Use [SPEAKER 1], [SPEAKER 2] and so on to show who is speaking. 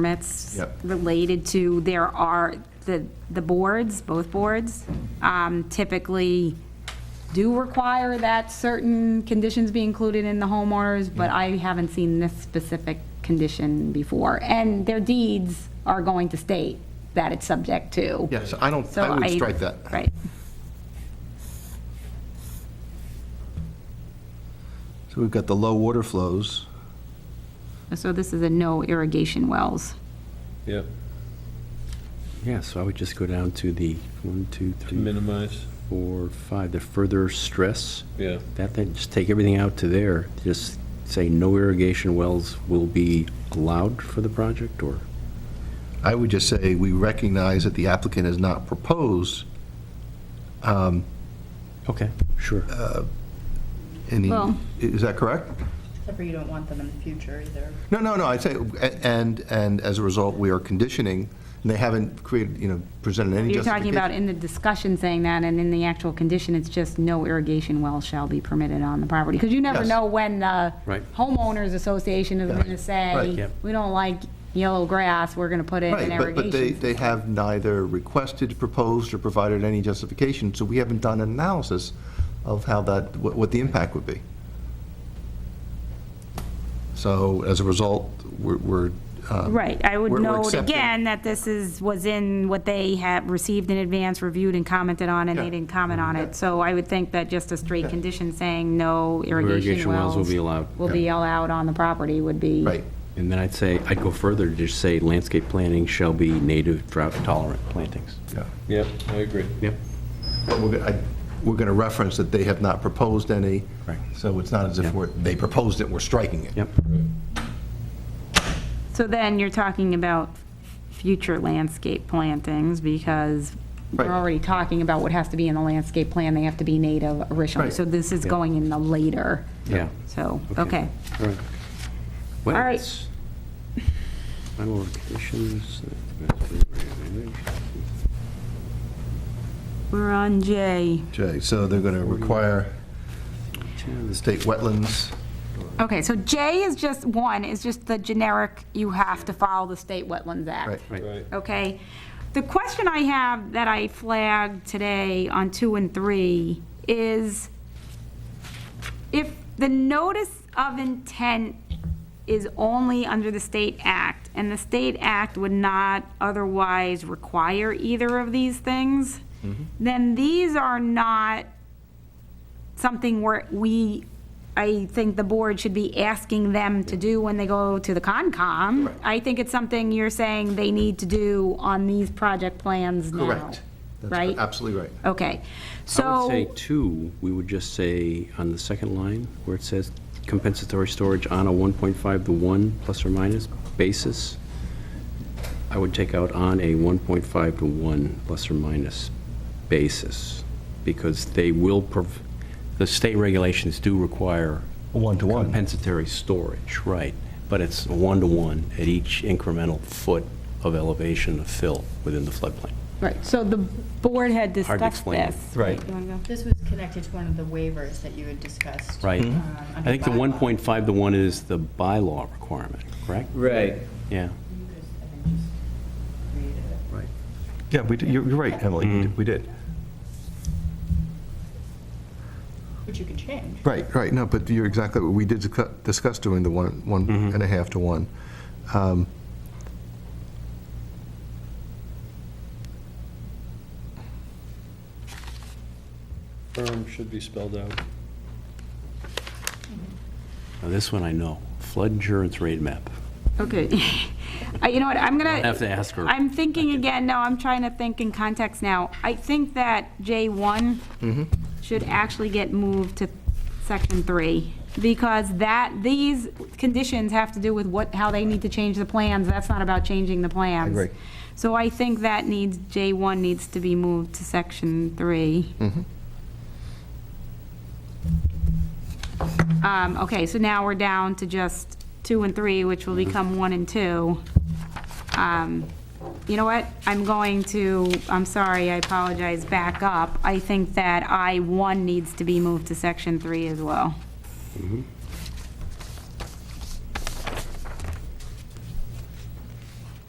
[SPEAKER 1] permits
[SPEAKER 2] Yep.
[SPEAKER 1] related to, there are, the, the boards, both boards, um, typically do require that certain conditions be included in the homeowners, but I haven't seen this specific condition before. And their deeds are going to state that it's subject to.
[SPEAKER 2] Yes, I don't,
[SPEAKER 1] So
[SPEAKER 2] I would strike that.
[SPEAKER 1] Right.
[SPEAKER 2] So we've got the low water flows.
[SPEAKER 1] So this is a no irrigation wells.
[SPEAKER 3] Yep,
[SPEAKER 4] Yeah, so I would just go down to the one, two,
[SPEAKER 3] to
[SPEAKER 4] three,
[SPEAKER 3] minimize,
[SPEAKER 4] four, five, the further stress.
[SPEAKER 3] yeah.
[SPEAKER 4] That, then just take everything out to there. Just say no irrigation wells will be allowed for the project or?
[SPEAKER 2] I would just say, we recognize that the applicant has not proposed
[SPEAKER 4] Okay, sure.
[SPEAKER 2] any,
[SPEAKER 1] Well-
[SPEAKER 2] is that correct?
[SPEAKER 5] Except for you don't want them in the future either.
[SPEAKER 2] No, no, no, I'd say, a- and, and as a result, we are conditioning, and they haven't created, you know, presented any
[SPEAKER 1] You're talking
[SPEAKER 2] justification.
[SPEAKER 1] about in the discussion saying that, and in the actual condition, it's just no irrigation wells shall be permitted on the property. Because you never
[SPEAKER 2] Yes.
[SPEAKER 1] know when the
[SPEAKER 4] Right.
[SPEAKER 1] homeowners association is
[SPEAKER 2] Yeah.
[SPEAKER 1] going to
[SPEAKER 2] Right.
[SPEAKER 1] say,
[SPEAKER 4] Yep.
[SPEAKER 1] we don't like yellow grass, we're going to put in an
[SPEAKER 2] Right, but, but they,
[SPEAKER 1] irrigation.
[SPEAKER 2] they have neither requested, proposed, or provided any justification, so we haven't done an analysis of how that, what, what the impact would be. So as a result, we're, we're. um,
[SPEAKER 1] Right, I would
[SPEAKER 2] we're- we're
[SPEAKER 1] note
[SPEAKER 2] accepting-
[SPEAKER 1] again that this is, was in what they had received in advance, reviewed and commented on, and
[SPEAKER 2] Yeah.
[SPEAKER 1] they didn't comment on it. So I would think that just a straight condition saying no irrigation
[SPEAKER 4] Irrigation wells
[SPEAKER 1] wells.
[SPEAKER 4] will be allowed.
[SPEAKER 1] Will be allowed on the property would be.
[SPEAKER 2] Right,
[SPEAKER 4] And then I'd say, I'd go further, just say landscape planting shall be native drought tolerant plantings.
[SPEAKER 2] yeah.
[SPEAKER 3] Yep, I agree.
[SPEAKER 4] Yep.
[SPEAKER 2] But we're, gonna- I- we're going to reference that they have not proposed any.
[SPEAKER 4] Right.
[SPEAKER 2] So it's not as if
[SPEAKER 4] Yeah.
[SPEAKER 2] we're, they proposed it, we're striking it.
[SPEAKER 4] Yep.
[SPEAKER 1] So then you're talking about future landscape plantings because we're
[SPEAKER 2] Right.
[SPEAKER 1] already talking about what has to be in the landscape plan. They have to be native originally.
[SPEAKER 2] Right.
[SPEAKER 1] So this is going in the later.
[SPEAKER 4] Yeah.
[SPEAKER 1] So,
[SPEAKER 4] Okay.
[SPEAKER 1] okay.
[SPEAKER 4] All right. What
[SPEAKER 1] All right.
[SPEAKER 4] else? Final conditions.
[SPEAKER 1] We're on J.
[SPEAKER 2] Jay, so they're going to require state wetlands.
[SPEAKER 1] Okay, so J is just, one, is just the generic, you have to follow the State Wetlands Act.
[SPEAKER 2] Right.
[SPEAKER 3] Right,
[SPEAKER 1] okay? The question I have that I flagged today on two and three is if the notice of intent is only under the state act, and the state act would not otherwise require either of these things, then these are not something where we, I think the board should be asking them to do when they go to the Concom. I think it's something you're saying they need to do on these project plans now.
[SPEAKER 2] Correct. That's
[SPEAKER 1] Right?
[SPEAKER 2] Absolutely right.
[SPEAKER 1] Okay,
[SPEAKER 4] I would say
[SPEAKER 1] so,
[SPEAKER 4] two, we would just say on the second line where it says compensatory storage on a 1.5 to 1 plus or minus basis, I would take out on a 1.5 to 1 plus or minus basis because they will, prov- the state regulations do require.
[SPEAKER 2] A one-to-one.
[SPEAKER 4] Compensatory storage, right. But it's a one-to-one at each incremental foot of elevation of fill within the floodplain.
[SPEAKER 1] right, so the board had
[SPEAKER 4] Hard to
[SPEAKER 1] discussed
[SPEAKER 4] explain.
[SPEAKER 1] this.
[SPEAKER 2] Right.
[SPEAKER 1] You wanna go?
[SPEAKER 5] This was connected to one of the waivers that you had discussed.
[SPEAKER 4] Right.
[SPEAKER 5] um,
[SPEAKER 4] I
[SPEAKER 5] under
[SPEAKER 4] think the
[SPEAKER 5] bylaw.
[SPEAKER 4] 1.5 to 1 is the bylaw requirement, correct?
[SPEAKER 6] Right.
[SPEAKER 4] Yeah.
[SPEAKER 5] You just- I think just created it.
[SPEAKER 4] Right.
[SPEAKER 2] Yeah, we, did- you're you're right, Emily, we did- we did.
[SPEAKER 5] Which you could change.
[SPEAKER 2] Right, right, no, but you're exactly, we did discu- discuss doing the one, one and a half to one. Um,
[SPEAKER 3] firm should be spelled out.
[SPEAKER 4] Now, this one I know, flood insurance rate map.
[SPEAKER 1] Okay. Uh, You know what, I'm gonna.
[SPEAKER 4] Don't have to ask her.
[SPEAKER 1] I'm thinking again, no, I'm trying to think in context now. I think that J1 should actually get moved to section three, because that, these conditions have to do with what, how they need to change the plans, that's not about changing the plans.
[SPEAKER 2] agree.
[SPEAKER 1] So I think that needs, J1 needs to be moved to section three. Um, okay, so now we're down to just two and three, which will become one and two. Um, You know what? I'm going to, I'm sorry, I apologize, back up. I think that I1 needs to be moved to section three as well.